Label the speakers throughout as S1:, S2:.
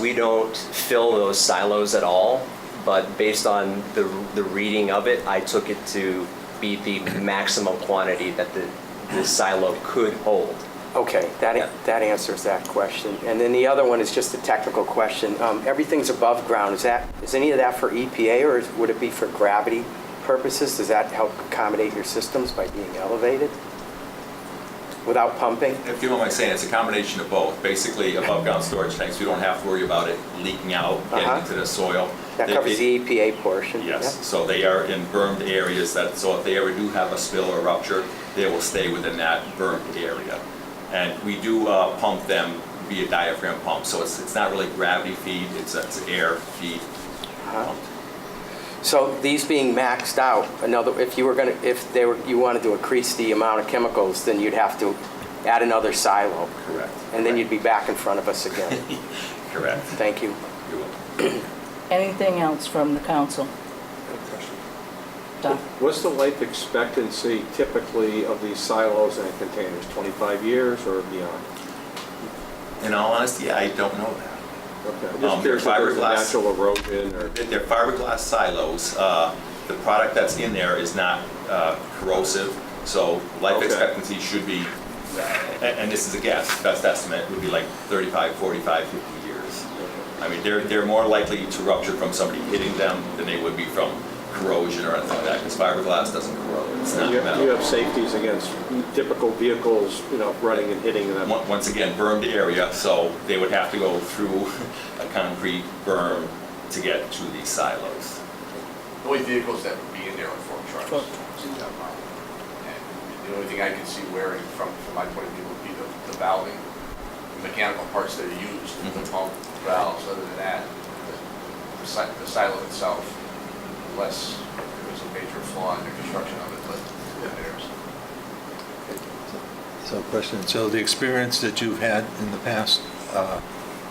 S1: We don't fill those silos at all, but based on the, the reading of it, I took it to be the maximum quantity that the, the silo could hold.
S2: Okay,
S1: Yeah.
S2: that, that answers that question. And then the other one is just a technical question. Um, Everything's above ground, is that, is any of that for EPA or is- would it be for gravity purposes? Does that help accommodate your systems by being elevated without pumping?
S3: If you don't mind saying, it's a combination of both. Basically, above-ground storage tanks, we don't have to worry about it leaking out,
S2: Uh-huh.
S3: getting into the soil.
S2: That
S3: They-
S2: covers
S3: they-
S2: the EPA portion?
S3: Yes, so they are in bermed areas that, so if they ever do have a spill or rupture, they will stay within that bermed area. And we do uh, pump them via diaphragm pump, so it's, it's not really gravity feed, it's, it's air feed.
S2: Uh-huh. Yeah. So these being maxed out, another, if you were going to, if they were, you wanted to increase the amount of chemicals, then you'd have to add another silo.
S3: Correct.
S2: And then you'd be back in front of us again.
S3: Correct.
S2: Thank you.
S3: You're welcome.
S4: Anything else from the council? Don?
S5: What's the life expectancy typically of these silos and containers, 25 years or beyond?
S3: In all honesty, I don't know that.
S5: Okay, I'm
S3: Um,
S5: just curious if there's a
S3: fiberglass.
S5: natural erosion or,
S3: They're fiberglass silos. Uh, The product that's in there is not uh, corrosive, so life
S5: Okay.
S3: expectancy should be, a- and this is a guess, best estimate would be like 35, 45, 50 years. I mean, they're, they're more likely to rupture from somebody hitting them than they would be from corrosion or anything like that, because fiberglass doesn't corrode, it's not
S5: you have you
S3: metal.
S5: have safeties against typical vehicles, you know, running and hitting them.
S3: Mon- Once again, bermed area, so they would have to go through a concrete berm to get to these silos.
S6: The only vehicles that would be in there are Ford trucks.
S4: Truck.
S6: And the only thing I can see wearing from, from my point of view would be the, the valving, the mechanical parts that are used, the
S3: Mhm.
S6: pump, valves, other than that, the si- the silo itself, unless there was a major flaw in the construction of it, but there's.
S7: So question, so the experience that you've had in the past uh,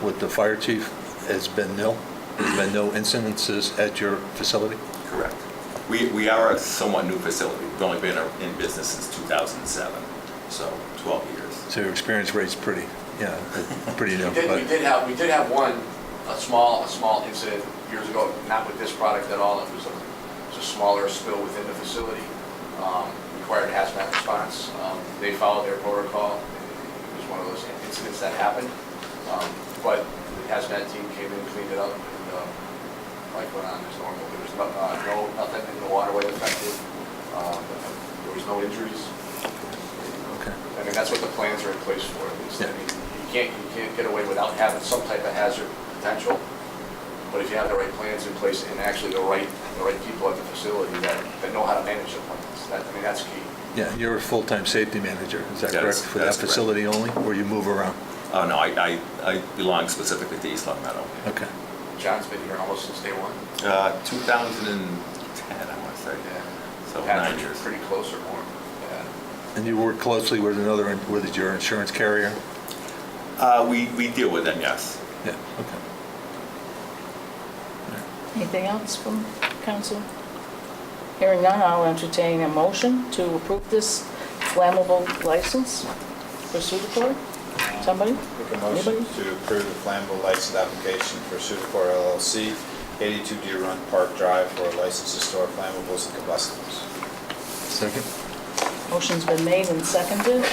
S7: with the fire chief has been nil? There's been no incidences at your facility?
S3: Correct. We, we are a somewhat new facility. We've only been in business since 2007, so 12 years.
S7: So your experience rate's pretty, yeah, pretty nil.
S6: We did, we
S7: but-
S6: did have, we did have one, a small, a small incident years ago, not with this product at all. It was a, it was a smaller spill within the facility, um, required hazmat response. Um, They followed their protocol. It was one of those incidents that happened. Um, But the hazmat team came in, cleaned it up, and, uh, life went on as normal. There was no, uh, no, nothing in the waterway affected. Um, There was no injuries.
S7: Okay.
S6: I mean, that's what the plans are in place for, at least. I
S7: Yeah.
S6: mean, you can't, you can't get away without having some type of hazard potential. But if you have the right plans in place and actually the right, the right people at the facility that, that know how to manage the plans, that, I mean, that's key.
S7: Yeah, you're a full-time safety manager, is that
S3: That's-
S7: correct? For that
S3: that's correct.
S7: facility only, or you move around?
S3: Oh, no, I, I I belong specifically to East Long Meadow.
S7: Okay.
S6: John's been here almost since day one.
S3: Uh, 2010, I want to say. So nine
S6: Patrick's
S3: years.
S6: Pretty close or more. Yeah.
S7: And you work closely with another, with your insurance carrier?
S3: Uh, We, we deal with them, yes.
S7: Yeah, okay.
S4: Anything else from council? Hearing none, I'll entertain a motion to approve this flammable license for Sudacor. Somebody?
S8: Make a motion
S4: Anybody?
S8: to approve the flammable license application for Sudacor LLC, 82 Deer Run Park Drive for a license to store flammables and combustibles.
S7: Second?
S4: Motion's been made and seconded.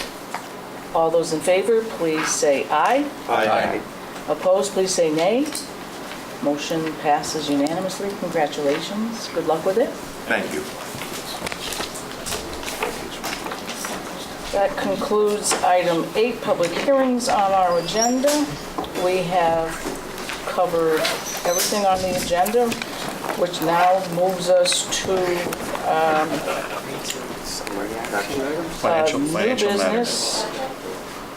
S4: All those in favor, please say aye.
S8: Aye.
S4: Opposed, please say nay. Motion passes unanimously. Congratulations. Good luck with it.
S3: Thank you.
S4: That concludes item eight, public hearings on our agenda. We have covered everything on the agenda, which now moves us to um,
S2: Action items?
S4: uh, new business.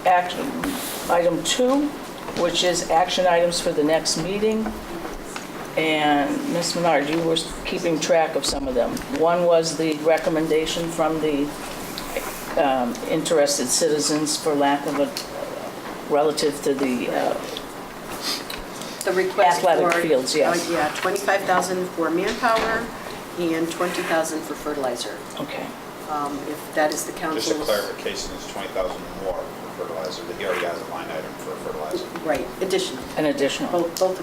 S4: Action, item two, which is action items for the next meeting. And Ms. Menard, you were keeping track of some of them. One was the recommendation from the um, interested citizens for lack of a, relative to the, uh,
S9: The request for...
S4: Athletic fields, yes.
S9: Uh, Yeah, 25,000 for manpower and 20,000 for fertilizer.
S4: okay.
S9: Um, If that is the
S8: Just a
S9: council's...
S8: clarification, it's 20,000 more.
S10: fertilizer, that he already has a line item for fertilizer.
S8: Right, additional,
S4: an additional.
S8: both, both